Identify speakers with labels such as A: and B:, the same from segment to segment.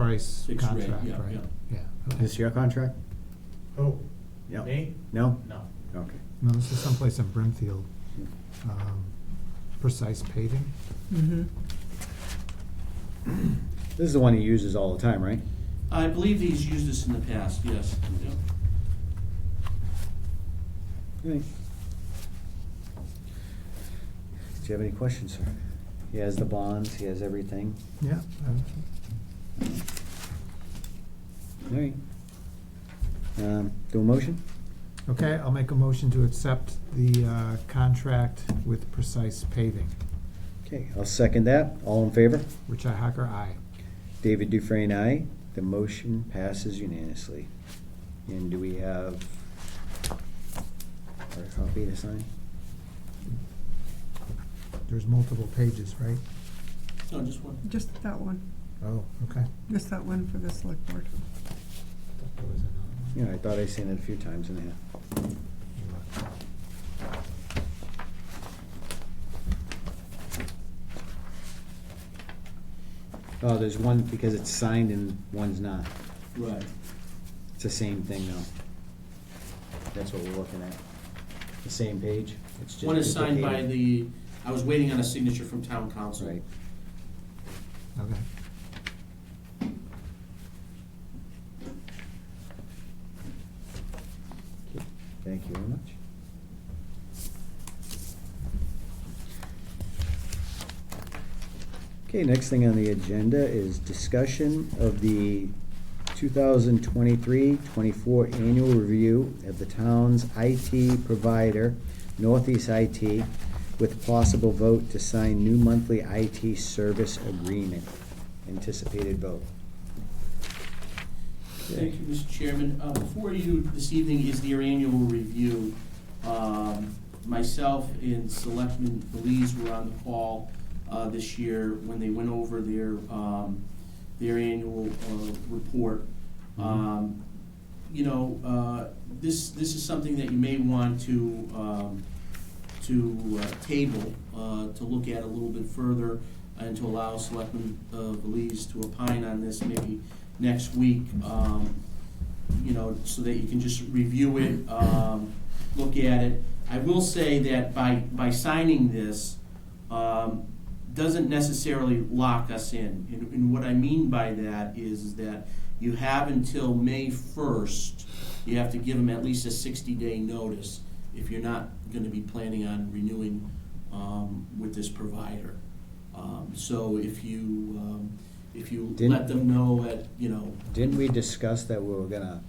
A: price
B: Fixed rate,
A: contract,
B: yeah,
A: right?
B: yeah.
A: yeah. okay.
C: Is this your contract?
D: Oh,
C: No.
D: me?
C: No?
D: No.
C: Okay.
A: No, this is someplace in Brimfield, um, precise paving.
E: Mm-hmm.
C: This is the one he uses all the time, right?
B: I believe he's used this in the past, yes. Yep.
C: Right. Do you have any questions, sir? He has the bonds, he has everything.
A: Yeah. um,
C: All right. Um, do a motion?
A: Okay, I'll make a motion to accept the, uh, contract with precise paving.
C: Okay, I'll second that. All in favor?
A: Richi Hacker, aye.
C: David Dufresne, aye. The motion passes unanimously. And do we have our copy to sign?
A: There's multiple pages, right?
B: No, just one.
E: Just that one,
A: Oh, okay.
E: just that one for the select board.
A: Thought there was another
C: Yeah, I thought I seen it a few times in there.
A: one.
C: Oh, there's one because it's signed and one's not.
B: Right.
C: It's the same thing though. That's what we're looking at. The same page. It's just
B: One is signed by
C: duplicated.
B: the, I was waiting on a signature from town council.
C: Right.
A: Okay.
C: Thank you very much. Okay, next thing on the agenda is discussion of the 2023-24 annual review of the town's IT provider, Northeast IT, with possible vote to sign new monthly IT service agreement. Anticipated vote.
B: Thank you, Mr. Chairman. Uh, Before you, this evening is their annual review. Um, Myself and Selectman Belize were on the call uh, this year when they went over their, um, their annual uh, report. Um, You know, uh, this, this is something that you may want to, um, to uh, table, uh, to look at a little bit further and to allow Selectman uh, Belize to opine on this maybe next week, um, you know, so that you can just review it, um, look at it. I will say that by, by signing this, um, doesn't necessarily lock us in. And, and what I mean by that is that you have until May first, you have to give them at least a sixty-day notice if you're not gonna be planning on renewing, um, with this provider. Um, so if you, um, if you
C: Didn't-
B: let them know at, you know,
C: Didn't we discuss that we were gonna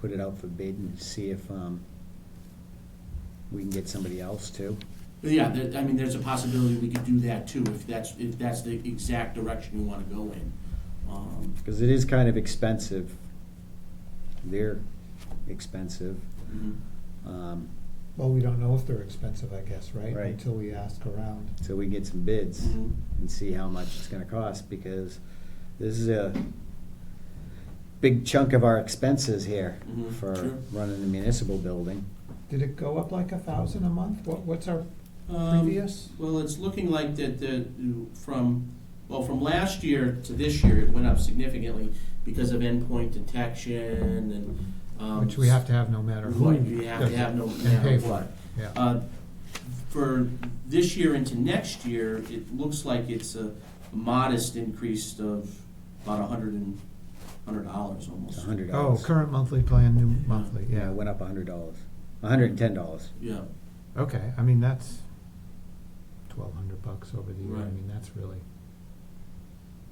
C: put it out for bid and see if, um, we can get somebody else too?
B: Yeah, there, I mean, there's a possibility we could do that too, if that's, if that's the exact direction you wanna go in. Um,
C: Cause it is kind of expensive. They're expensive.
B: mhm.
C: Um,
A: Well, we don't know if they're expensive, I guess, right?
C: Right.
A: Until we ask around.
C: so we get some bids
B: Mhm.
C: and see how much it's gonna cost because this is a big chunk of our expenses here
B: Mhm,
C: for
B: sure.
C: running the municipal building.
A: Did it go up like a thousand a month? What, what's our
B: Um,
A: previous?
B: Well, it's looking like that, the, from, well, from last year to this year, it went up significantly because of endpoint detection and, um.
A: Which we have to have no matter who.
B: Right, you have to have no
A: does it,
B: matter
A: And pay for
B: what.
A: it, yeah.
B: Uh, For this year into next year, it looks like it's a modest increase of about a hundred and, hundred dollars
C: It's
B: almost.
C: a hundred
A: Oh,
C: dollars.
A: current monthly plan, new monthly,
C: Yeah,
A: yeah.
C: it went up a hundred dollars, a hundred and ten dollars.
B: Yeah,
A: Okay, I mean, that's twelve hundred bucks over the year, I
B: Right.
A: mean, that's really,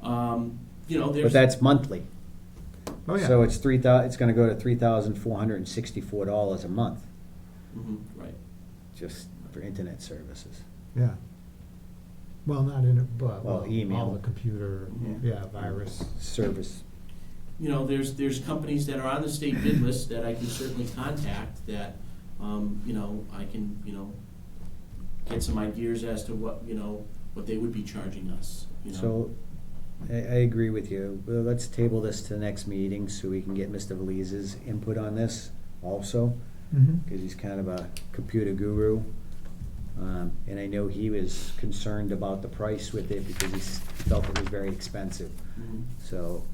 B: um, you know, there's.
C: But that's monthly.
A: oh, yeah.
C: So it's three thou, it's gonna go to three thousand four hundred and sixty-four dollars a month,
B: Mhm, Right,
C: just for internet services.
A: Yeah. Well, not in, a- but,
C: Well,
A: well, all
C: email.
A: the computer,
B: Yeah.
A: yeah, virus.
C: Service,
B: you know, there's, there's companies that are on the state bid list that I can certainly contact that, um, you know, I can, you know, get some ideas as to what, you know, what they would be charging us, you know.
C: so I, I agree with you. Well, let's table this to the next meeting so we can get Mr. Valise's input on this also,
A: Mm-hmm.
C: because he's kind of a computer guru. Um, and I know he was concerned about the price with it because he s- felt it was very expensive.
B: Mhm.
C: So